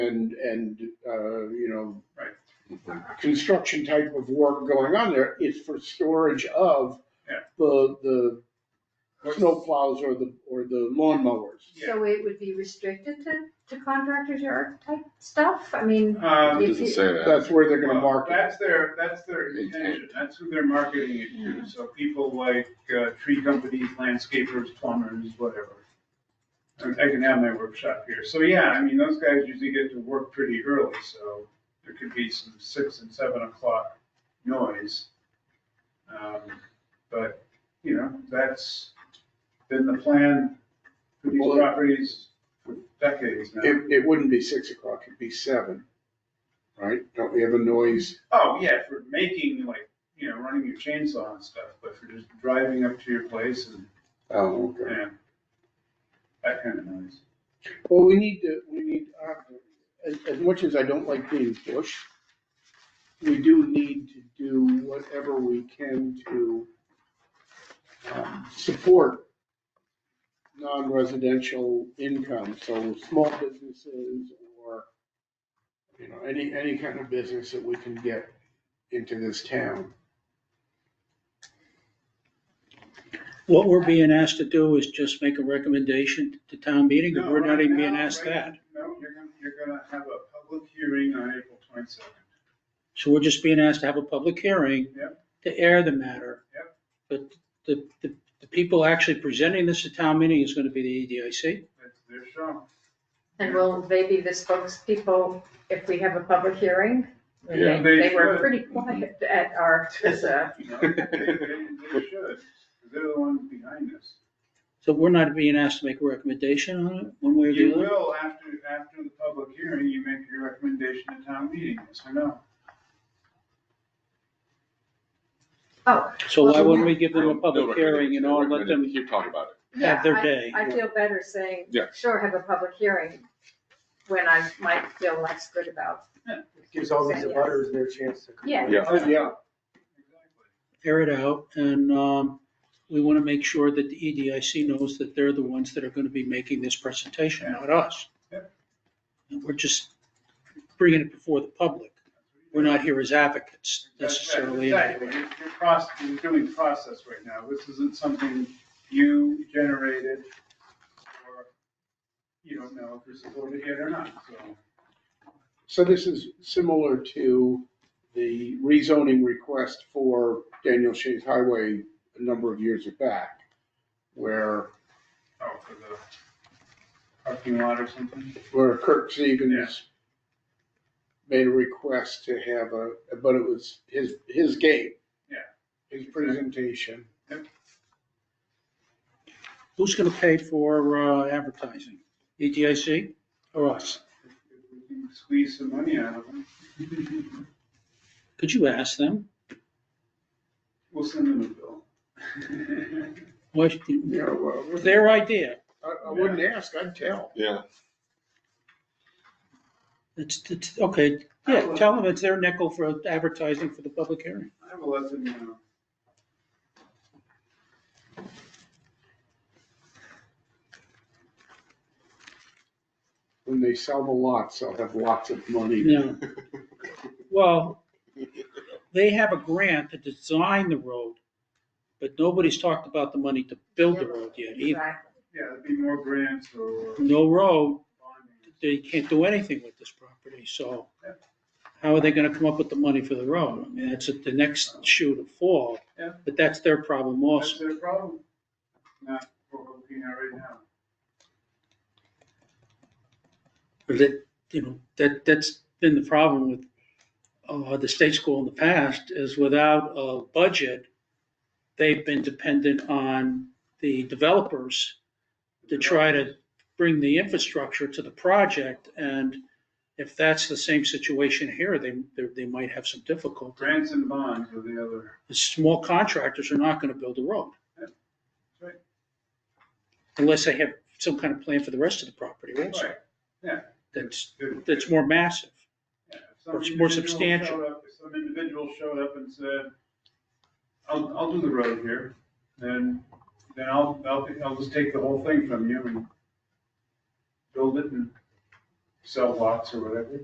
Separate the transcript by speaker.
Speaker 1: and, and, uh, you know,
Speaker 2: Mhm.
Speaker 1: construction type of work going on there, it's for storage of
Speaker 2: Yeah.
Speaker 1: the, the snowplows or the, or the lawnmowers.
Speaker 3: So it would be restricted to, to contractors yard type stuff? I mean,
Speaker 2: Um,
Speaker 3: Yeah.
Speaker 4: It doesn't say that.
Speaker 1: That's where they're gonna
Speaker 2: well,
Speaker 1: market.
Speaker 2: That's their, that's their intention, that's who they're marketing it
Speaker 1: Mm-hmm.
Speaker 2: to, so people like, uh, tree companies, landscapers, plumbers, whatever. I I can have my workshop here, so yeah, I mean, those guys usually get to work pretty early, so there could be some six and seven o'clock noise. Um, But, you know, that's been the plan for these
Speaker 1: Well-
Speaker 2: properties for decades now.
Speaker 1: It, it wouldn't be six o'clock, it'd be seven, right? Don't we have a noise?
Speaker 2: Oh, yeah, for making, like, you know, running your chainsaw and stuff, but for just driving up to your place and,
Speaker 1: Oh, okay.
Speaker 2: yeah, that kind of noise.
Speaker 1: Well, we need to, we need, uh, as, as much as I don't like being pushed, we do need to do whatever we can to um, support non-residential income, so small businesses or, you know, any, any kind of business that we can get into this town.
Speaker 5: What we're being asked to do is just make a recommendation to town meeting, and
Speaker 2: No,
Speaker 5: we're not
Speaker 2: right
Speaker 5: even being
Speaker 2: now,
Speaker 5: asked
Speaker 2: right-
Speaker 5: that.
Speaker 2: No, you're gonna, you're gonna have a public hearing on April twenty-second.
Speaker 5: So we're just being asked to have a public hearing
Speaker 2: Yep.
Speaker 5: to air the matter. But the, the, the people actually presenting this at town meeting is gonna be the E EDIC.
Speaker 2: That's their show.
Speaker 3: and will they be the spokespeople if we have a public hearing? And they-
Speaker 2: Yeah. They
Speaker 3: They were
Speaker 2: should.
Speaker 3: pretty quiet at our, uh, TISA.
Speaker 2: You know, They they- they should, 'cause they're the ones behind this.
Speaker 5: So we're not being asked to make a recommendation on it, one way or the
Speaker 2: You
Speaker 5: other.
Speaker 2: will, after, after the public hearing, you make your recommendation to town meeting, yes or no?
Speaker 3: Oh,
Speaker 5: So why wouldn't we give them a
Speaker 4: No
Speaker 5: public hearing and all, let them
Speaker 4: You talk about it.
Speaker 3: Yeah,
Speaker 5: have their
Speaker 3: I-
Speaker 5: day?
Speaker 3: I feel better saying,
Speaker 4: Yeah.
Speaker 3: sure, have a public hearing when I might feel less good about.
Speaker 6: Gives all these abutters their chance to.
Speaker 3: Yeah.
Speaker 4: Yeah.
Speaker 1: Oh, yeah,
Speaker 2: Exactly.
Speaker 5: air it out, and um, we want to make sure that the E EDIC knows that they're the ones that are going to be making this presentation, not us.
Speaker 2: Yep.
Speaker 5: And We're just bringing it before the public. We're not here as advocates necessarily.
Speaker 2: Exactly, You're- you're process, you're doing process right now, this isn't something you generated, or you don't know if you're supported yet or not, so.
Speaker 1: So this is similar to the rezoning request for Daniel Shays Highway a number of years back, where,
Speaker 2: Oh, for the parking lot or something?
Speaker 1: where Kirk
Speaker 2: Yeah.
Speaker 1: Stevens made a request to have a, but it was his, his game.
Speaker 2: Yeah.
Speaker 1: His presentation.
Speaker 5: Who's going to pay for uh, advertising? E EDIC or us?
Speaker 2: If if we can Squeeze some money out of them,
Speaker 5: Could you ask them?
Speaker 2: we'll send them a bill.
Speaker 5: What,
Speaker 1: Yeah, well,
Speaker 5: their idea.
Speaker 1: I, I wouldn't ask, I'd tell.
Speaker 4: Yeah.
Speaker 5: It's, it's, okay, yeah, tell them it's their nickel for advertising for the public hearing.
Speaker 2: I will let them know.
Speaker 1: When they sell the lots, they'll have lots of money.
Speaker 5: No. Well, they have a grant to design the road, but nobody's talked about the money to build the road yet either.
Speaker 3: Exactly.
Speaker 2: Yeah, there'd be more grants or
Speaker 5: No road,
Speaker 2: bonding.
Speaker 5: they can't do anything with this property, so how are they gonna come up with the money for the road? I mean, that's at the next shoe to fall,
Speaker 2: Yeah.
Speaker 5: but that's their problem
Speaker 2: That's
Speaker 5: also.
Speaker 2: their problem, not what we're looking at right now.
Speaker 5: Or That, you know, that, that's been the problem with, uh, the state school in the past, is without a budget, they've been dependent on the developers to try to bring the infrastructure to the project, and if that's the same situation here, they, they- they might have some difficulty.
Speaker 2: Grants and bonds are the other.
Speaker 5: The small contractors are not gonna build a road.
Speaker 2: Yeah, right.
Speaker 5: Unless they have some kind of plan for the rest of the property also.
Speaker 2: Right.
Speaker 5: That's,
Speaker 2: If-
Speaker 5: that's more massive.
Speaker 2: yeah, if some
Speaker 5: or it's more
Speaker 2: individual
Speaker 5: substantial.
Speaker 2: showed up- If some individual showed up and said, I'll, I'll do the road here, then, then I'll, I'll, I'll just take the whole thing from you and build it and cell blocks or whatever.